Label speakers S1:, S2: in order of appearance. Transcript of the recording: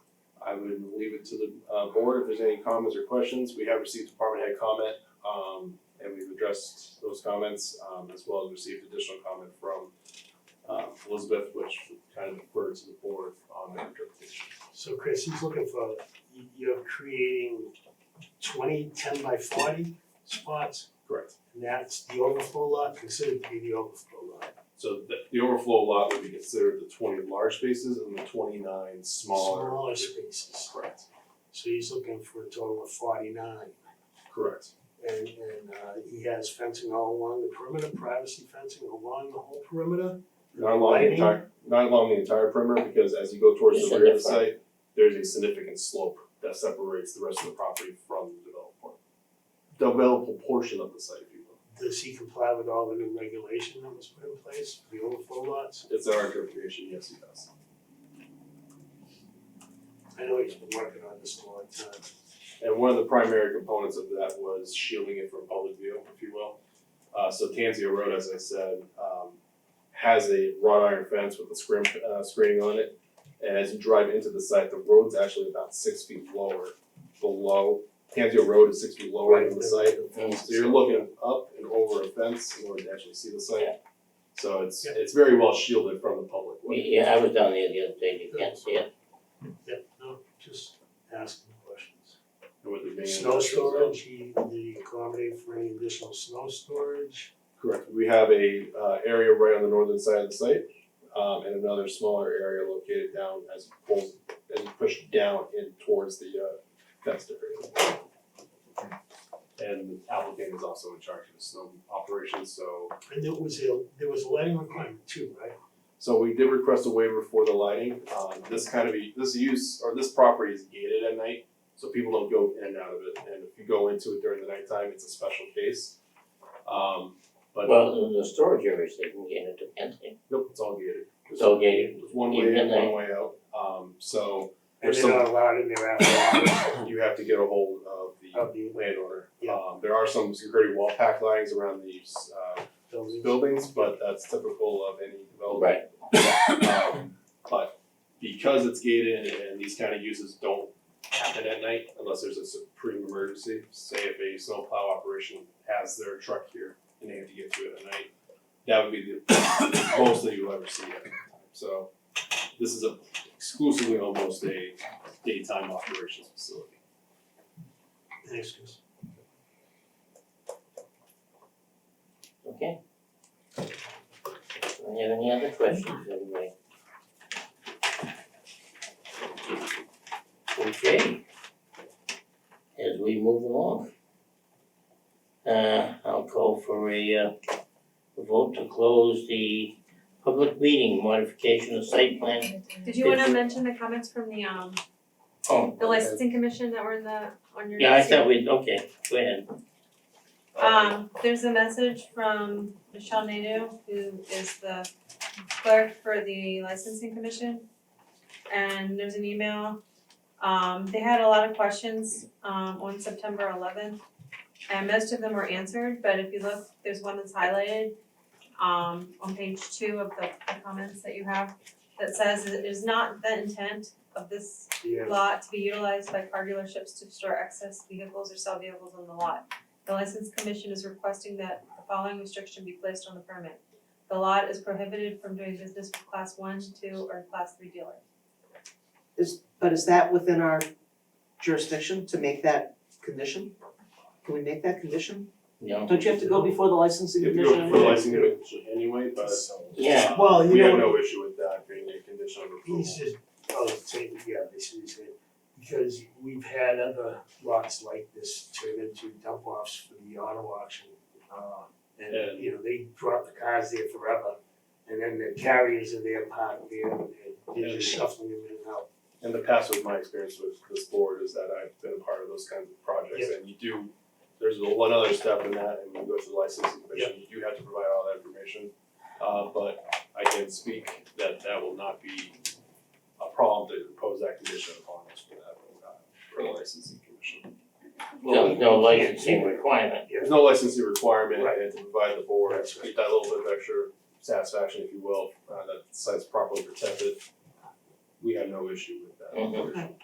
S1: I would leave it to the uh board if there's any comments or questions. We have received department head comment um and we've addressed those comments um as well as received additional comment from uh Elizabeth, which kind of referred to the board on their interpretation.
S2: So Chris, he's looking for, you- you're creating 20 10 by forty spots,
S1: Correct.
S2: and that's the overflow lot, considered to be the overflow lot.
S1: So the the overflow lot would be considered the twenty large spaces and the twenty-nine smaller.
S2: Smaller spaces,
S1: Correct,
S2: so he's looking for a total of forty-nine.
S1: correct.
S2: And and uh he has fencing all along the perimeter, privacy fencing along the whole perimeter.
S1: Not along the
S2: Lighting.
S1: entire, not along the entire perimeter, because as you go towards
S3: It's
S1: the
S3: a
S1: rear of the
S3: different-
S1: site, there's a significant slope that separates the rest of the property from the developable. Developable portion of the site, if you will.
S2: Does he comply with all the new regulation that was put in place for the overflow lots?
S1: It's our interpretation, yes, he does.
S2: I know he's been working on this a long time.
S1: And one of the primary components of that was shielding it from public view, if you will. Uh, so Tanzio Road, as I said, um, has a wrought iron fence with a scrim, uh, screening on it. And as you drive into the site, the road's actually about six feet lower below, Tanzio Road is six feet lower than the site. So you're looking up and over a fence in order to actually see the site. So it's,
S2: Yeah.
S1: it's very well shielded from the public way.
S3: Yeah, I was down there the other day, you can't see it.
S2: Yeah, no, just asking questions.
S1: And with it being an
S2: Snow
S1: industrial zone.
S2: storage, he, did he accommodate for any additional snow storage?
S1: Correct. We have a uh area right on the northern side of the site, um and another smaller area located down as it pulls as you push down in towards the uh fenced area. And the applicant is also in charge of the snow operations, so
S2: And there was a, there was a lighting requirement too, right?
S1: so we did request a waiver for the lighting. Um this kind of, e- this use, or this property is gated at night, so people don't go in and out of it. And if you go into it during the nighttime, it's a special case. Um but
S3: Well, the, the storage areas, they can get into fencing.
S1: nope, it's all gated.
S3: It's all gated.
S1: It's one way
S3: Even
S1: in,
S3: though-
S1: one way out, um, so
S2: And
S1: there's
S2: they're not
S1: some,
S2: allowed in there after,
S1: you have to get a hold of
S2: of
S1: the
S2: the
S1: landowner.
S2: Oh. Yeah.
S1: Um, there are some security wall pack lines around these, uh,
S2: building.
S1: buildings, but that's typical of any development.
S3: Right,
S1: Um, but because it's gated and these kind of uses don't happen at night unless there's a supreme emergency, say if a snowplow operation has their truck here and they have to get to it at night, that would be the most that you'll ever see at night. So this is a exclusively almost a daytime operations facility.
S2: Thanks, Chris.
S3: okay. Do you have any other questions, anybody? Okay. As we move along. Uh, I'll call for a, uh, vote to close the public meeting modification of site plan.
S4: Did you wanna mention the comments from the um
S3: Oh,
S4: the licensing commission that were in the on your
S3: yeah, I
S4: notes here?
S3: thought we, okay, go ahead.
S4: Um there's a message from Michelle Nadeau, who is the clerk for the licensing commission. And there's an email, um they had a lot of questions um on September eleventh. And most of them were answered, but if you look, there's one that's highlighted um on page two of the the comments that you have. That says it is not the intent of this
S2: Yeah.
S4: lot to be utilized by car dealerships to store excess vehicles or sell vehicles on the lot. The license commission is requesting that the following restriction be placed on the permit. The lot is prohibited from doing business with class one, two, or class three dealers.
S5: But is that within our jurisdiction to make that condition? Can we make that condition?
S3: No,
S5: Don't you have to go before the licensing
S1: You have to
S5: commission?
S1: go for licensing commission anyway, but
S3: yeah,
S2: Well, you
S1: we have
S2: know-
S1: no issue with that being a condition of approval.
S2: He's just, oh, take, yeah, they should say, because we've had other lots like this turn into dump offs for the auto auction. Uh,
S1: Yeah.
S2: and, you know, they drop the cars there forever, and then the carriers are there parked there, and they're just
S1: Yeah.
S2: shuffling them in and out.
S1: in the past with my experience with this board is that I've been a part of those kinds of projects and you do, there's a- one other step in that and you go to the licensing commission, you do have to provide all that information. Uh, but I can speak that that will not be a problem to impose that condition upon us for that, uh, for the licensing commission.
S3: no, no licensing requirement.
S1: There's no licensing requirement
S2: Right.
S1: and to provide the board,
S2: That's right.
S1: that little bit of extra satisfaction, if you will, uh, that the site's properly protected. We have no issue with that.
S3: Mhm.